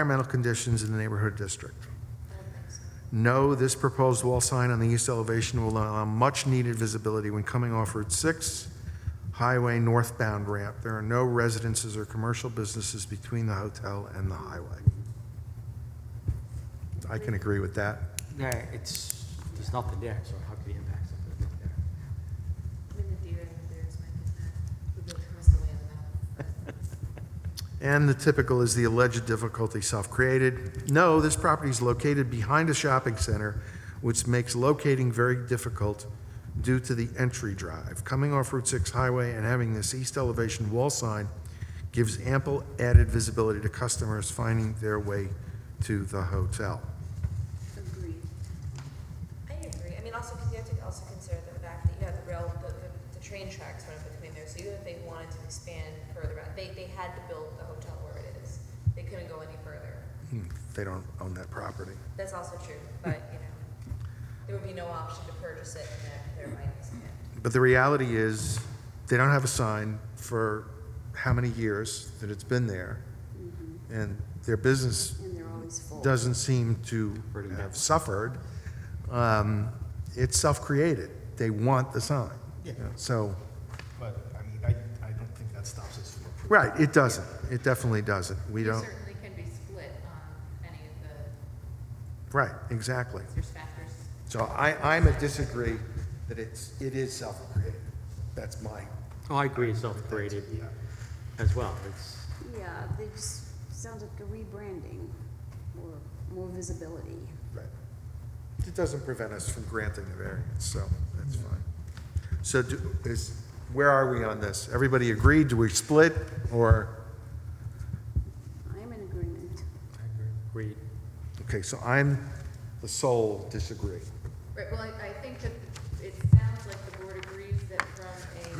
environmental conditions in the neighborhood district. No, this proposed wall sign on the east elevation will allow much-needed visibility when coming off Route 6 Highway northbound ramp. There are no residences or commercial businesses between the hotel and the highway. I can agree with that. No, it's, there's nothing there, so how could it impact something that's not there? I mean, the deer and the bears might get that, would they twist away on that? And the typical is the alleged difficulty self-created. No, this property is located behind a shopping center, which makes locating very difficult due to the entry drive. Coming off Route 6 Highway and having this east elevation wall sign gives ample added visibility to customers finding their way to the hotel. Agreed. I agree. I mean, also, because you have to also consider the fact that you have the rail, the, the, the train tracks running between there, so even if they wanted to expand further out, they, they had to build the hotel where it is. They couldn't go any further. Hmm, They don't own that property. That's also true, but, you know, there would be no option to purchase it and then there might expand. But the reality is, they don't have a sign for how many years that it's been there, and their business And they're always full. doesn't seem to Pretty bad. have suffered. Um, It's self-created. They want the sign. Yeah. So, But, I mean, I, I don't think that stops us from approving. right, it doesn't. It definitely doesn't. We There don't, certainly can be split on any of the, right, exactly. there's factors. So I, I'm a disagree that it's, it is self-created. That's my, Oh, I agree, it's self-created as well, it's, Yeah, they just, sounds like a rebranding or more visibility. right. It doesn't prevent us from granting the variance, so that's fine. So do- is, where are we on this? Everybody agreed? Do we split, or? I'm in agreement. agreed. Okay, so I'm the sole disagree. Right, well, I, I think that it sounds like the board agrees that from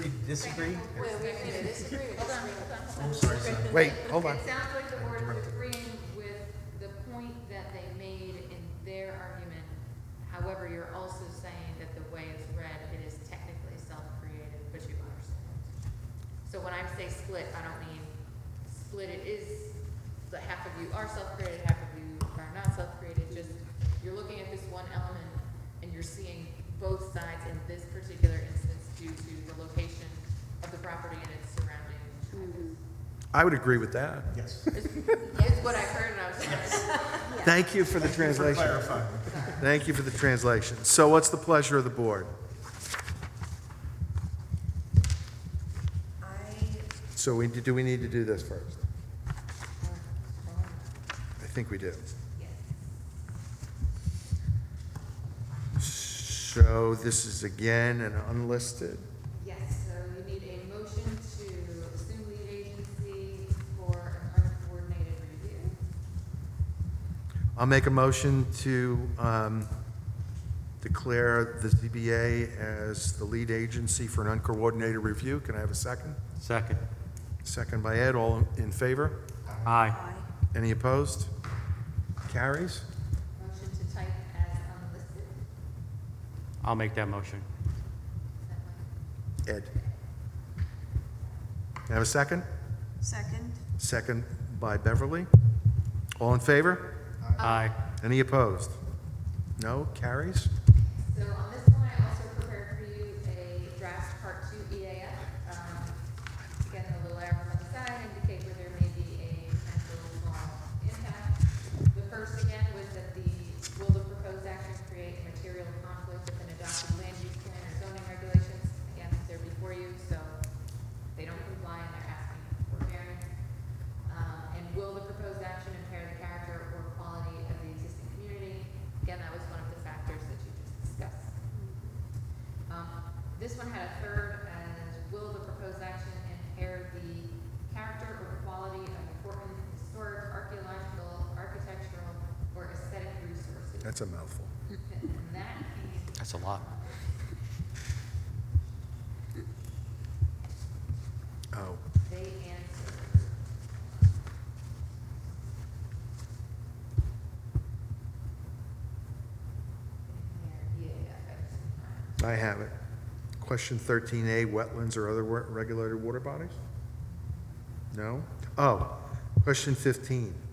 a. Disagree? Wait, we agree to disagree or disagree? Hold on, hold on, hold on. I'm sorry, Wait, hold on. It sounds like the board is agreeing with the point that they made in their argument. However, you're also saying that the way it's read, it is technically self-created, but you understand. So when I say split, I don't mean split, it is, that half of you are self-created, half of you are not self-created, just, you're looking at this one element and you're seeing both sides in this particular instance due to the location of the property and its surrounding. I would agree with that. Yes. It's what I heard and I was like, Thank you for the translation. Thank you for the translation. So what's the pleasure of the board? I So we, do we need to do this first? I think we do. So this is again an unlisted, yes, so you need a motion to assume lead agency for an uncoordinated review. I'll make a motion to um, declare the ZBA as the lead agency for an uncoordinated review. Can I have a second? Second, Second by Ed, all in favor? aye. Any opposed? Carries? Motion to type as unlisted. I'll make that motion. Is that one? Ed. Can I Have a second? Second? Second by Beverly. All in favor? Aye. Any opposed? No? Carries? So on this one, I also prepared for you a draft part two EAF. Um, Again, the little arrows on the side indicate where there may be a potential small impact. The first again was that the, will the proposed action create a material conflict with an adopted land use plan or zoning regulations? Again, they're before you, so they don't comply and they're asking for variance. Um, And will the proposed action impair the character or quality of the existing community? Again, that was one of the factors that you just discussed. Um, This one had a third, as will the proposed action impair the character or quality of important historic, archaeological, architectural, or aesthetic resources? That's a mouthful. And that came That's a lot. Oh, They answer. Yeah, yeah, that's- I have it. Question 13A, wetlands or other wa- regulated water bodies? No? Oh, question 15.